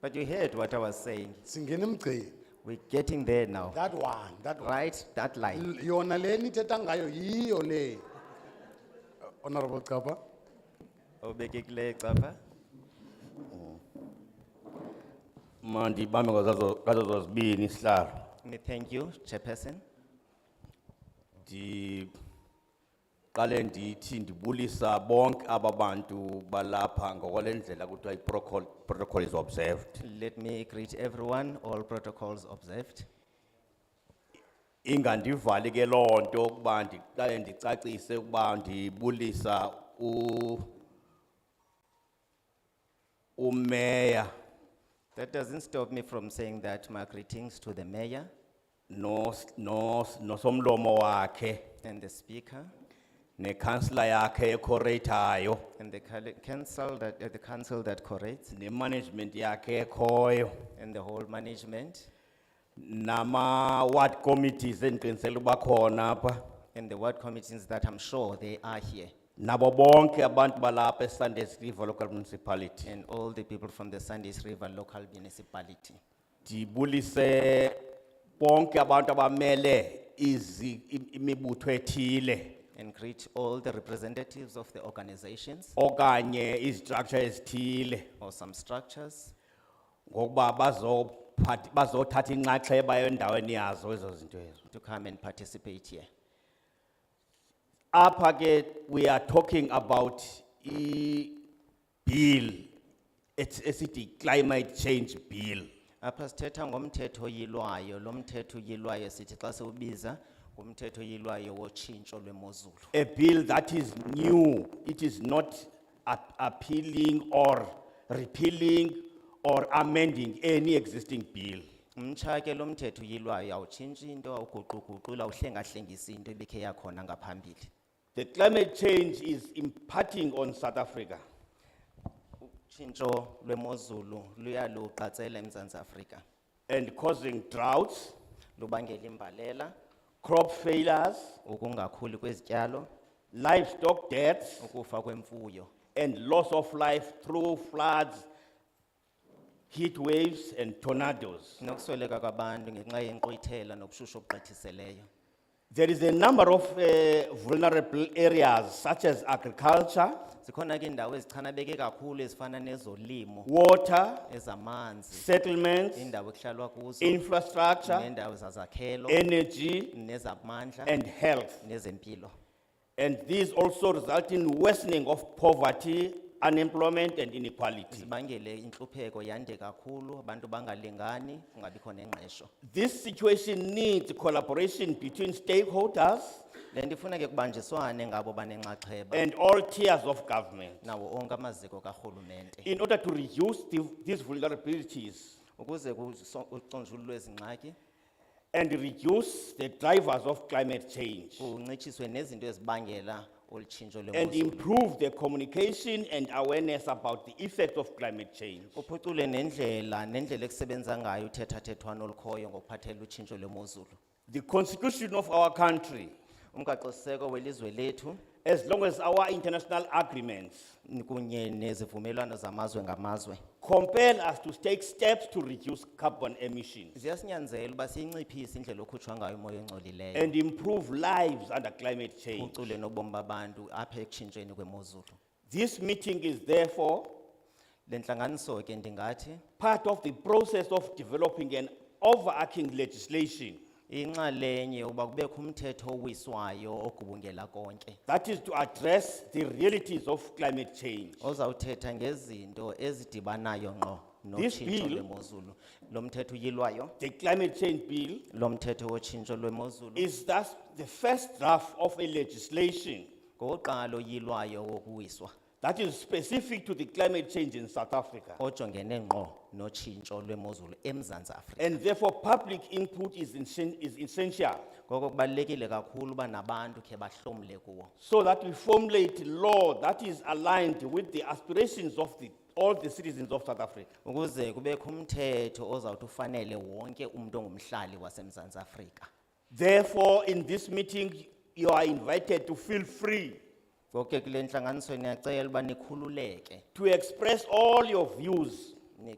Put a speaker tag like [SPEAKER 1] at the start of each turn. [SPEAKER 1] But you heard what I was saying.
[SPEAKER 2] singena emgceni
[SPEAKER 1] We're getting there now,
[SPEAKER 2] that one that one
[SPEAKER 1] right? That line.
[SPEAKER 2] L- yona le nithetha ngayo yiyo le honorable Kapa
[SPEAKER 1] Obekekileyo capha.
[SPEAKER 3] mandibambe ngazazo ngazo zozibini sihlalo
[SPEAKER 1] Me thank you, Chairperson.
[SPEAKER 3] ndiqale ndithi ndibulisa bonke aba bantu balapha ngokwale ndlela kuthiwa i-protocol protocol is observed
[SPEAKER 1] Let me greet everyone, all protocols observed.
[SPEAKER 3] ingandivali ke loo nto ukuba ndiqale ndicacise ukuba ndibulisa u umeya
[SPEAKER 1] That doesn't stop me from saying that my greetings to the mayor
[SPEAKER 3] nos- nos- nosomlomo wakhe
[SPEAKER 1] and the speaker
[SPEAKER 3] nekhansila yakhe ekhoreyithayo
[SPEAKER 1] and the col- council that, uh, the council that corrects
[SPEAKER 3] nemanagement yakhe ekhoyo
[SPEAKER 1] and the whole management
[SPEAKER 3] nama-ward committees endiqinisele uba khona apha
[SPEAKER 1] and the ward committees that I'm sure they are here
[SPEAKER 3] nabo bonke abantu balapha esundays river local municipality
[SPEAKER 1] and all the people from the Sandys River local municipality.
[SPEAKER 3] ndibulise bonke abantu abamele izi- im- imibutho ethile
[SPEAKER 1] And greet all the representatives of the organizations
[SPEAKER 3] okanye izistructure ezithile
[SPEAKER 1] or some structures
[SPEAKER 3] ngokuba bazophath- bazothatha inxaxheba endaweni yazo ezo zinto ezo
[SPEAKER 1] to come and participate here.
[SPEAKER 3] apha ke we are talking about i-bill ets- esithi climate change bill
[SPEAKER 1] Apha sithetha ngomthetho yilwayo, lo mthetho yilwayo sithi xa siwubiza ngumthetho yilwayo wotshintsho lwemozulu.
[SPEAKER 3] a bill that is new it is not ap- appealing or repealing or amending any existing bill
[SPEAKER 1] Mtsha ke lo mthetho yilwayo awutshintshi into, awuguquguqula, uhlengahlengisi into ebikhe yakhona ngaphambili.
[SPEAKER 3] the climate change is impacting on south africa
[SPEAKER 1] Tshintsho lwemozulu luyaluqatsela eMzantsi Afrika.
[SPEAKER 3] and causing droughts
[SPEAKER 1] Lubangela imbalela,
[SPEAKER 3] crop failures
[SPEAKER 1] ukungakhuli kwezityalo,
[SPEAKER 3] livestock deaths
[SPEAKER 1] ukufa kwemfuyo
[SPEAKER 3] and loss of life through floods, heat waves, and tornadoes.
[SPEAKER 1] nokusweleka kwabantu ngenxa yenkqwithela nobushushu obugqithisileyo.
[SPEAKER 3] There is a number of eh, vulnerable areas such as agriculture,
[SPEAKER 1] Zikhona ke iindawo ezichanabeke kakhulu ezifana nezolimo,
[SPEAKER 3] water,
[SPEAKER 1] ezamanzi,
[SPEAKER 3] settlements,
[SPEAKER 1] indawo ekuhlalwa kuzo,
[SPEAKER 3] infrastructure,
[SPEAKER 1] neendawo zazakhelo,
[SPEAKER 3] energy,
[SPEAKER 1] nezamandla,
[SPEAKER 3] and health.
[SPEAKER 1] nezempilo.
[SPEAKER 3] And these also result in worsening of poverty, unemployment, and inequality.
[SPEAKER 1] Zibangele intlupheko yande kakhulu, abantu bangalingani, kungabikho nengqesho.
[SPEAKER 3] This situation needs collaboration between stakeholders
[SPEAKER 1] Le nto ifuna ke kubanjiswane ngabo banenxaxheba,
[SPEAKER 3] and all tiers of government.
[SPEAKER 1] nawo onke amaziko karhulumente.
[SPEAKER 3] in order to reduce the- these vulnerabilities
[SPEAKER 1] Ukuze kuconjululwe ezi ngxaki,
[SPEAKER 3] and reduce the drivers of climate change
[SPEAKER 1] kuncitshiswe nezinto ezibangela olu tshintsho
[SPEAKER 3] and
[SPEAKER 1] lwemozulu.
[SPEAKER 3] improve the communication and awareness about the effects of climate change.
[SPEAKER 1] Uphucule nendlela, nendlela ekusebenza ngayo uthethathethwano olukhoyo ngokuphathela utshintsho lwemozulu.
[SPEAKER 3] The constitution of our country,
[SPEAKER 1] Umgaqosiseko welizwe lethu
[SPEAKER 3] as long as our international agreements
[SPEAKER 1] n- kunye nezivumelwano zamazwe ngamazwe.
[SPEAKER 3] compel us to take steps to reduce carbon emissions
[SPEAKER 1] Ziyasinyanzela uba siyinciphise indlela okhutshwa ngayo umoya ongcolileyo.
[SPEAKER 3] and improve lives under climate change.
[SPEAKER 1] Uphucule nobomi babantu apha ekutshintshweni kwemozulu.
[SPEAKER 3] This meeting is therefore
[SPEAKER 1] Le ntlanganiso ke ndingathi
[SPEAKER 3] part of the process of developing an overarching legislation
[SPEAKER 1] inxalenye yokuba kubekho umthetho owiswayo ogubungela konke.
[SPEAKER 3] That is to address the realities of climate change.
[SPEAKER 1] Ozawuthetha ngezinto ezidibanayo ngqo
[SPEAKER 3] This
[SPEAKER 1] notshintsho
[SPEAKER 3] bill-
[SPEAKER 1] lwemozulu. Lo mthetho uyilwayo,
[SPEAKER 3] The climate change bill
[SPEAKER 1] lo mthetho wotshintsho lwemozulu,
[SPEAKER 3] is thus the first draft of a legislation
[SPEAKER 1] ngowokuqala oyilwayo wokuwiswa,
[SPEAKER 3] that is specific to the climate change in South Africa.
[SPEAKER 1] ojongene ngqo notshintsho lwemozulu eMzantsi Afrika.
[SPEAKER 3] And therefore, public input is essen- is essential
[SPEAKER 1] Ngoko kubalulekile kakhulu uba nabantu khe bahlomle kuwo.
[SPEAKER 3] so that we formulate law that is aligned with the aspirations of the, all the citizens of South Africa.
[SPEAKER 1] Ukuze kubekho umthetho ozawuthi ufanele wonke umuntu ongumhlali waseMzantsi Afrika.
[SPEAKER 3] Therefore, in this meeting, you are invited to feel free
[SPEAKER 1] Ngoko ke kule ntlanganiso niyacela uba nikhululeke,
[SPEAKER 3] to express all your views
[SPEAKER 1] ni-